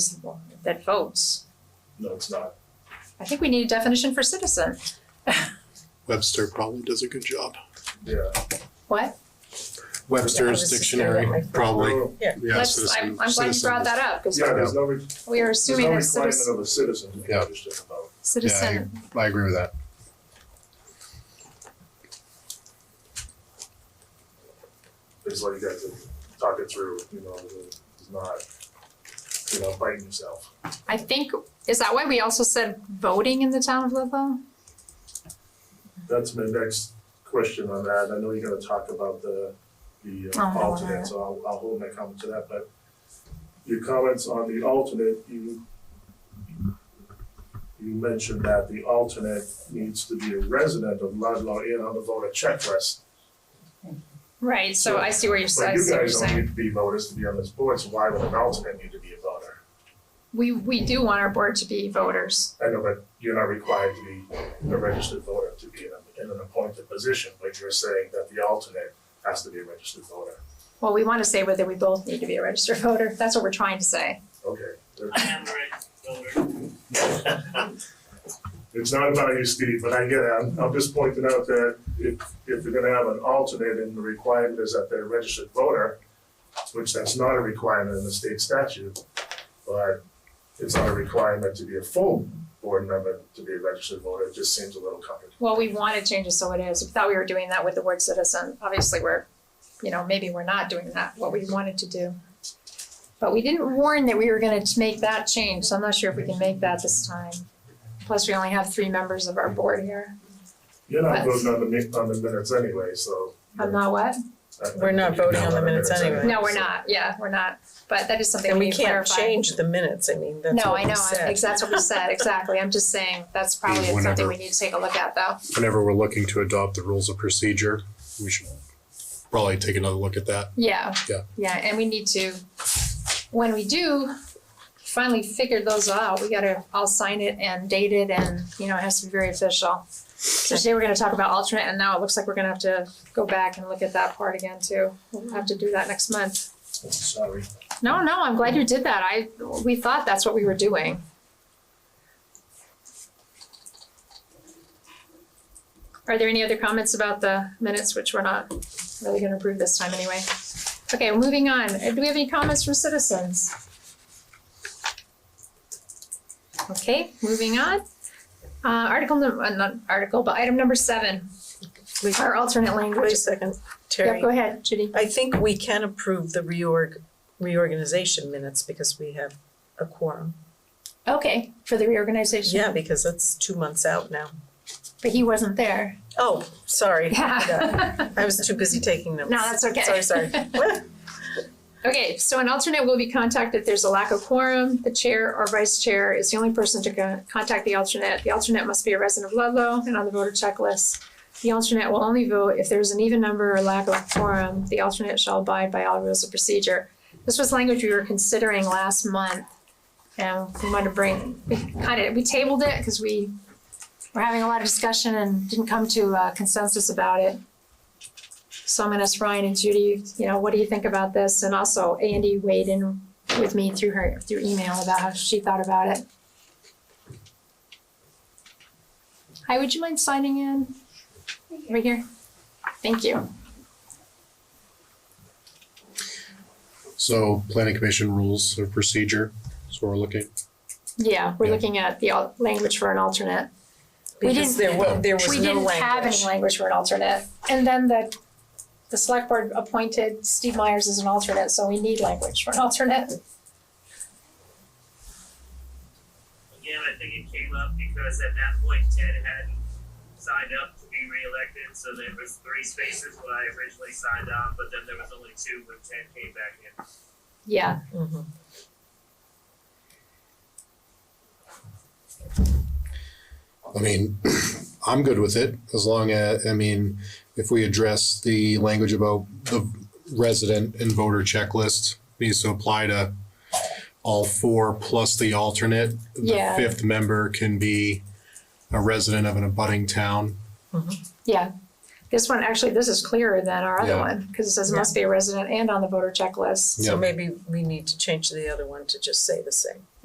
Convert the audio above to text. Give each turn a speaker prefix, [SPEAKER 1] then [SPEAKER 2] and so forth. [SPEAKER 1] that votes.
[SPEAKER 2] No, it's not.
[SPEAKER 1] I think we need a definition for citizen.
[SPEAKER 3] Webster probably does a good job.
[SPEAKER 2] Yeah.
[SPEAKER 1] What?
[SPEAKER 3] Webster's dictionary probably.
[SPEAKER 4] Yeah.
[SPEAKER 3] Yeah,
[SPEAKER 1] Let's, I'm,
[SPEAKER 3] citizen,
[SPEAKER 1] I'm glad you brought
[SPEAKER 3] citizen.
[SPEAKER 1] that up, because
[SPEAKER 2] Yeah, there's no, re-
[SPEAKER 1] we are
[SPEAKER 2] there's
[SPEAKER 1] assuming
[SPEAKER 2] no
[SPEAKER 1] that
[SPEAKER 2] requirement
[SPEAKER 1] citizen,
[SPEAKER 2] of a citizen to be
[SPEAKER 3] Yeah.
[SPEAKER 2] interested in vote.
[SPEAKER 1] citizen,
[SPEAKER 3] I agree with that.
[SPEAKER 2] It's like you guys are talking through, you know, it's not, you know, biting yourself.
[SPEAKER 1] I think, is that why we also said voting in the town of Ludlow?
[SPEAKER 2] That's my next question on that. I know you're gonna talk about the, the
[SPEAKER 1] Oh, I
[SPEAKER 2] uh,
[SPEAKER 1] don't wanna-
[SPEAKER 2] alternate, so I'll, I'll hold my comment to that, but your comments on the alternate, you you mentioned that the alternate needs to be a resident of Ludlow and on the voter checklist.
[SPEAKER 1] Right, so I see where you're,
[SPEAKER 2] But
[SPEAKER 1] I
[SPEAKER 2] you
[SPEAKER 1] see what you're
[SPEAKER 2] guys don't
[SPEAKER 1] saying.
[SPEAKER 2] need to be voters to be on this board, so why would an alternate need to be a voter?
[SPEAKER 1] We, we do want our board to be voters.
[SPEAKER 2] I know, but you're not required to be a registered voter to be in, a- in an appointed position, but you're saying that the alternate has to be a registered voter.
[SPEAKER 1] Well, we want to say whether we both need to be a registered voter, that's what we're trying to say.
[SPEAKER 2] Okay.
[SPEAKER 5] I am a voter.
[SPEAKER 2] It's not about you, Steve, but I get it. I'm, I'm just pointing out that if, if you're gonna have an alternate and the requirement is that they're a registered voter, which that's not a requirement in the state statute, but it's not a requirement to be a full board member to be a registered voter. It just seems a little complicated.
[SPEAKER 1] Well, we want to change it so it is. We thought we were doing that with the word citizen. Obviously, we're, you know, maybe we're not doing that, what we wanted to do. But we didn't warn that we were gonna t- make that change, so I'm not sure if we can make that this time. Plus, we only have three members of our board here.
[SPEAKER 2] You're not
[SPEAKER 1] But-
[SPEAKER 2] voting on the, mi- on the minutes anyway, so.
[SPEAKER 1] I'm not what?
[SPEAKER 2] I- I
[SPEAKER 4] We're not
[SPEAKER 2] think you
[SPEAKER 4] voting
[SPEAKER 2] can
[SPEAKER 4] on the
[SPEAKER 2] vote
[SPEAKER 4] minutes anyway.
[SPEAKER 1] No, we're not. Yeah, we're not. But that is something
[SPEAKER 4] And
[SPEAKER 1] we
[SPEAKER 4] we
[SPEAKER 1] need to
[SPEAKER 4] can't
[SPEAKER 1] clarify.
[SPEAKER 4] change the minutes, I mean, that's
[SPEAKER 1] No,
[SPEAKER 4] what
[SPEAKER 1] I
[SPEAKER 4] we
[SPEAKER 1] know, I-
[SPEAKER 4] said.
[SPEAKER 1] ex- that's what we said, exactly. I'm just saying, that's probably
[SPEAKER 3] Yeah,
[SPEAKER 1] something
[SPEAKER 3] whenever-
[SPEAKER 1] we need to take a look at though.
[SPEAKER 3] Whenever we're looking to adopt the rules of procedure, we should probably take another look at that.
[SPEAKER 1] Yeah.
[SPEAKER 3] Yeah.
[SPEAKER 1] Yeah, and we need to, when we do finally figure those out, we gotta, I'll sign it and date it and, you know, it has to be very official. So today we're gonna talk about alternate and now it looks like we're gonna have to go back and look at that part again too. We'll have to do that next month.
[SPEAKER 2] I'm Sorry.
[SPEAKER 1] No, no, I'm glad you did that. I, we thought that's what we were doing. Are there any other comments about the minutes, which we're not really gonna approve this time anyway? Okay, moving on. Uh, Do we have any comments from citizens? Okay, moving on. Uh, article num- uh, not article, but item number seven,
[SPEAKER 4] Wait,
[SPEAKER 1] our alternate
[SPEAKER 4] Wait a
[SPEAKER 1] language.
[SPEAKER 4] second,
[SPEAKER 1] Yeah,
[SPEAKER 4] Terry.
[SPEAKER 1] go ahead, Judy.
[SPEAKER 4] I think we can approve the reorg, reorganization minutes because we have a quorum.
[SPEAKER 1] Okay, for the reorganization.
[SPEAKER 4] Yeah, because that's two months out now.
[SPEAKER 1] But he wasn't there.
[SPEAKER 4] Oh, sorry.
[SPEAKER 1] Yeah.
[SPEAKER 4] I was too busy taking notes.
[SPEAKER 1] No, that's okay.
[SPEAKER 4] Sorry, sorry.
[SPEAKER 1] Okay, so an alternate will be contacted if there's a lack of quorum. The chair or vice chair is the only person to con- contact the alternate. The alternate must be a resident of Ludlow and on the voter checklist. The alternate will only vote if there's an even number or lack of quorum. The alternate shall abide by all rules of procedure. This was language we were considering last month. And we wanted to bring, we kind of, we tabled it because we were having a lot of discussion and didn't come to a consensus about it. So I'm gonna ask Ryan and Judy, you know, what do you think about this? And also Andy weighed in with me through her, through email about how she thought about it. Hi, would you mind signing in? Right here? Thank you.
[SPEAKER 3] So planning commission rules of procedure, so we're looking.
[SPEAKER 1] Yeah, we're
[SPEAKER 3] Yeah.
[SPEAKER 1] looking at the al- language for an alternate. We
[SPEAKER 4] Because there wa- there was
[SPEAKER 1] We
[SPEAKER 4] no
[SPEAKER 1] didn't have any
[SPEAKER 4] language.
[SPEAKER 1] language for an alternate. And then the, the select board appointed Steve Myers as an alternate, so we need language for an alternate.
[SPEAKER 5] Again, I think it came up because at that point Ted hadn't signed up to be reelected, so there was three spaces when I originally signed on, but then there was only two when Ted came back in.
[SPEAKER 1] Yeah,
[SPEAKER 4] Mhm.
[SPEAKER 3] I mean, I'm good with it as long as, I mean, if we address the language about the resident and voter checklist needs to apply to all four plus the alternate.
[SPEAKER 1] Yeah.
[SPEAKER 3] The fifth member can be a resident of an abutting town.
[SPEAKER 1] Yeah, This one, actually, this is clearer than our other
[SPEAKER 3] Yeah.
[SPEAKER 1] one, because it says must be a resident and on the voter checklist.
[SPEAKER 4] So
[SPEAKER 3] Yeah.
[SPEAKER 4] maybe we need to change the other one to just say the same.